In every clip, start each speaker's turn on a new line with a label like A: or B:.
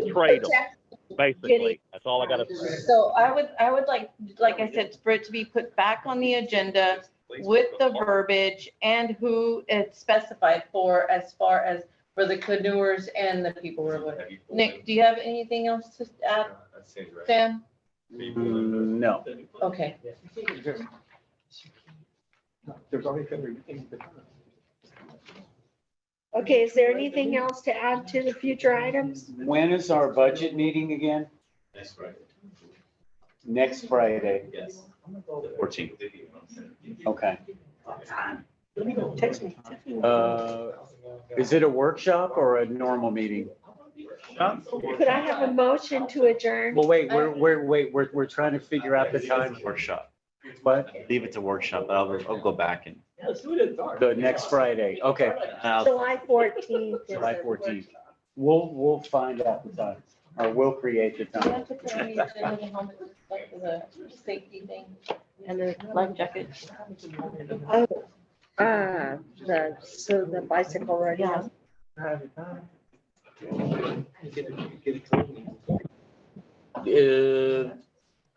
A: betrayed them, basically.
B: Getting-
A: That's all I gotta say.
B: So I would, I would like, like I said, for it to be put back on the agenda with the verbiage and who it's specified for as far as for the canoers and the people who are living. Nick, do you have anything else to add, Sam?
C: No.
B: Okay,
D: There's always every thing.
E: Okay, is there anything else to add to the future items?
C: When is our budget meeting again?
F: That's right.
C: Next Friday.
F: Yes.
C: Fourteen. Okay.
E: Text me.
C: Uh, Is it a workshop or a normal meeting?
E: Could I have a motion to adjourn?
C: Well, wait, we're, we're, wait, we're, we're trying to figure out the time.
F: Workshop.
C: What?
F: Leave it to workshop, but I'll, I'll go back and.
C: The next Friday. Okay.
F: I'll-
E: July fourteenth.
C: July fourteenth. We'll, we'll find out the time or we'll create the
B: Do you
C: time.
B: want to put on the agenda the helmet, like the safety thing and the life jacket?
E: Oh, uh, the, so the bicycle rodeo.
C: Uh,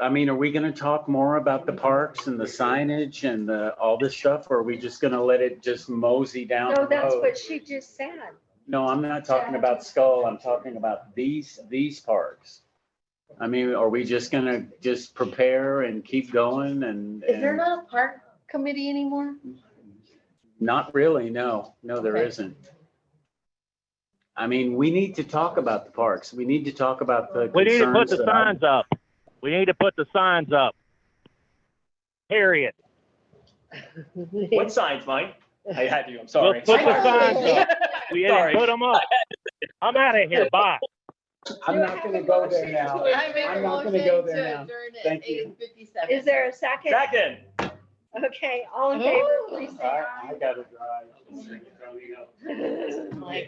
C: I mean, are we going to talk more about the parks and the signage and the, all this stuff? Or are we just going to let it just mosey down?
E: No,
C: the
E: that's
C: road?
E: what she just said.
C: No, I'm not talking about Skull. I'm talking about these, these parks. I mean, are we just gonna just prepare and keep going and,
B: Is there
C: and-
B: not a park committee anymore?
C: not really, no, no, there
B: Okay.
C: isn't. I mean, we need to talk about the parks. We need to talk about the
A: We need to put
C: concerns
A: the
C: that I-
A: signs up. We need to put the signs up. Period.
G: What signs, Mike? I had you, I'm sorry.
A: Well, put
B: the signs up.
A: We didn't
G: Sorry.
A: put them up. I'm out of here. Bye.
C: I'm not gonna go there now.
B: I make a
C: I'm not
B: motion
C: gonna
B: to
C: go there now.
B: adjourn at
C: Thank
B: eight
C: you.
B: fifty-seven.
E: Is there a second?
G: Second.
E: Okay, all in favor, please say
C: I,
E: aye.
C: I gotta drive.
E: Like-